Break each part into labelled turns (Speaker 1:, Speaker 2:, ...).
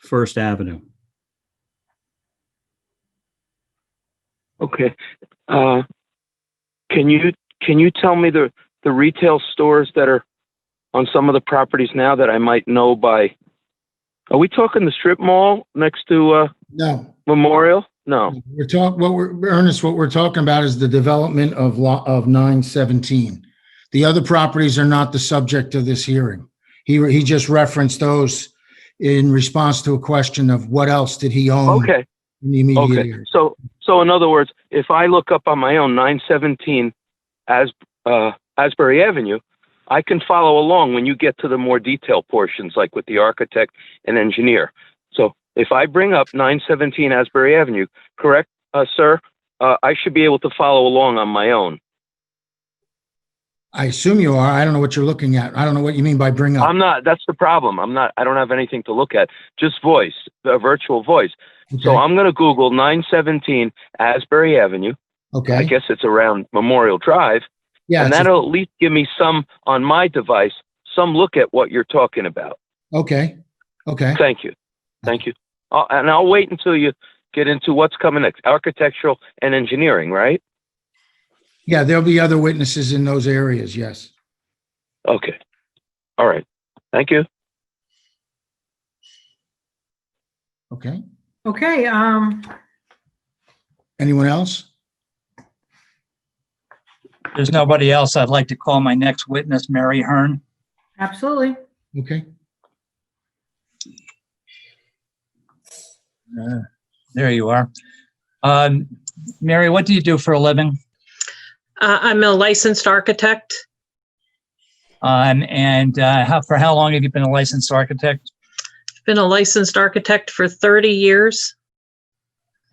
Speaker 1: First Avenue.
Speaker 2: Okay. Uh, Can you, can you tell me the, the retail stores that are on some of the properties now that I might know by? Are we talking the strip mall next to uh,
Speaker 3: No,
Speaker 2: Memorial? No.
Speaker 3: we're talking, what we're, Ernest, what we're talking about is the development of law, of nine seventeen. The other properties are not the subject of this hearing. He, he just referenced those in response to a question of what else did he own
Speaker 2: Okay,
Speaker 3: in the immediate
Speaker 2: okay.
Speaker 3: area.
Speaker 2: So, so in other words, if I look up on my own 917 As, uh, Asbury Avenue, I can follow along when you get to the more detailed portions, like with the architect and engineer. So if I bring up 917 Asbury Avenue, correct, uh, sir? Uh, I should be able to follow along on my own.
Speaker 3: I assume you are. I don't know what you're looking at. I don't know what you mean by bring up.
Speaker 2: I'm not, that's the problem. I'm not, I don't have anything to look at, just voice, a virtual voice. So
Speaker 3: Okay,
Speaker 2: I'm going to Google 917 Asbury Avenue. I
Speaker 3: Okay,
Speaker 2: guess it's around Memorial Drive.
Speaker 3: yeah,
Speaker 2: and
Speaker 3: it's-
Speaker 2: that'll at least give me some on my device, some look at what you're talking about.
Speaker 3: okay, okay.
Speaker 2: Thank you. Thank you. Uh, and I'll wait until you get into what's coming next architectural and engineering, right?
Speaker 3: Yeah, there'll be other witnesses in those areas, yes.
Speaker 2: Okay. All right. Thank you.
Speaker 3: Okay.
Speaker 4: Okay, um,
Speaker 3: Anyone else?
Speaker 5: there's nobody else, I'd like to call my next witness, Mary Hearn.
Speaker 4: absolutely.
Speaker 3: Okay,
Speaker 5: Uh, There you are. Um, Mary, what do you do for a living?
Speaker 6: Uh, I'm a licensed architect.
Speaker 5: Um, and, uh, how, for how long have you been a licensed architect?
Speaker 6: Been a licensed architect for 30 years.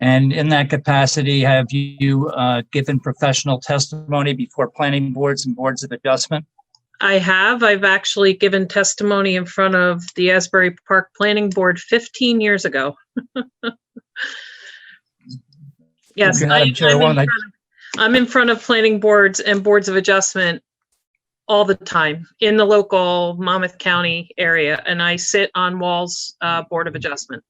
Speaker 5: And in that capacity, have you, uh, given professional testimony before planning boards and boards of adjustment?
Speaker 6: I have. I've actually given testimony in front of the Asbury Park Planning Board 15 years ago. yes,
Speaker 5: Okay,
Speaker 6: I,
Speaker 5: Madam
Speaker 6: am
Speaker 5: Chair, one, I-
Speaker 6: in front of planning boards and boards of adjustment all the time in the local Monmouth County area, and I sit on Wall's uh, Board of Adjustment.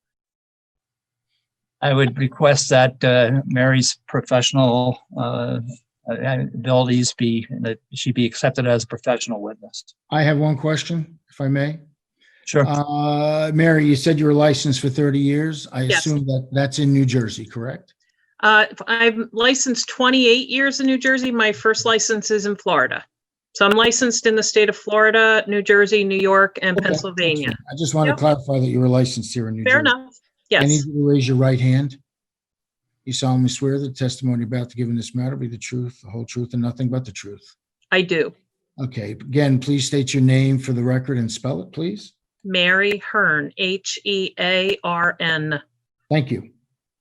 Speaker 5: I would request that uh, Mary's professional uh, abilities be, that she be accepted as a professional witness.
Speaker 3: I have one question, if I may.
Speaker 5: Sure.
Speaker 3: Uh, Mary, you said you were licensed for 30 years. I
Speaker 6: Yes.
Speaker 3: assume that that's in New Jersey, correct?
Speaker 6: Uh, I'm licensed 28 years in New Jersey. My first license is in Florida. So I'm licensed in the state of Florida, New Jersey, New York, and
Speaker 3: Okay.
Speaker 6: Pennsylvania.
Speaker 3: I just want to
Speaker 6: Yep.
Speaker 3: clarify that you were licensed here in New Jersey.
Speaker 6: Fair enough.
Speaker 3: I need
Speaker 6: Yes,
Speaker 3: you to raise your right hand. You solemnly swear that the testimony you're about to give in this matter will be the truth, the whole truth, and nothing but the truth.
Speaker 6: I do.
Speaker 3: Okay, again, please state your name for the record and spell it, please.
Speaker 6: Mary Hearn, H E A R N.
Speaker 3: Thank you.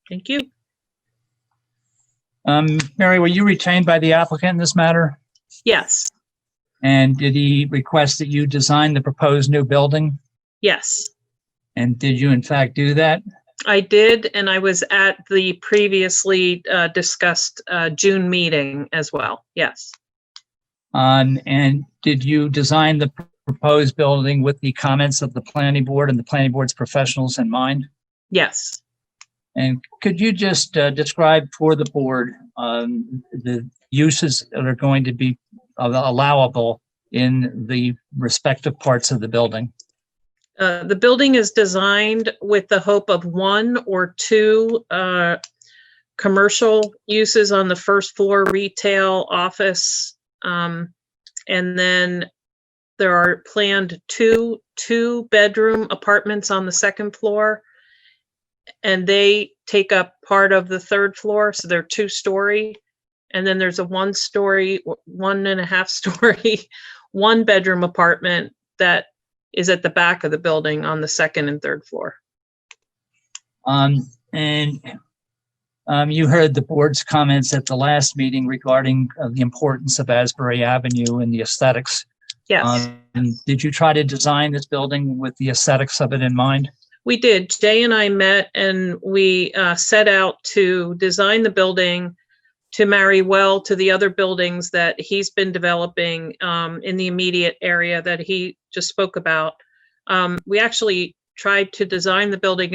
Speaker 6: Thank you.
Speaker 5: Um, Mary, were you retained by the applicant in this matter?
Speaker 6: Yes,
Speaker 5: And did he request that you design the proposed new building?
Speaker 6: yes,
Speaker 5: And did you in fact do that?
Speaker 6: I did. And I was at the previously uh, discussed uh, June meeting as well. Yes,
Speaker 5: Um, and did you design the proposed building with the comments of the planning board and the planning board's professionals in mind?
Speaker 6: yes.
Speaker 5: And could you just uh, describe for the board um, the uses that are going to be allowable in the respective parts of the building?
Speaker 6: Uh, the building is designed with the hope of one or two uh, commercial uses on the first floor, retail, office. um, And then there are planned two, two-bedroom apartments on the second floor. And they take up part of the third floor, so they're two-story. And then there's a one-story, w- one and a half-story, one-bedroom apartment that is at the back of the building on the second and third floor.
Speaker 5: Um, and um, you heard the board's comments at the last meeting regarding uh, the importance of Asbury Avenue and the aesthetics.
Speaker 6: Yes,
Speaker 5: Um, did you try to design this building with the aesthetics of it in mind?
Speaker 6: we did. Jay and I met and we uh, set out to design the building to marry well to the other buildings that he's been developing um, in the immediate area that he just spoke about. Um, We actually tried to design the building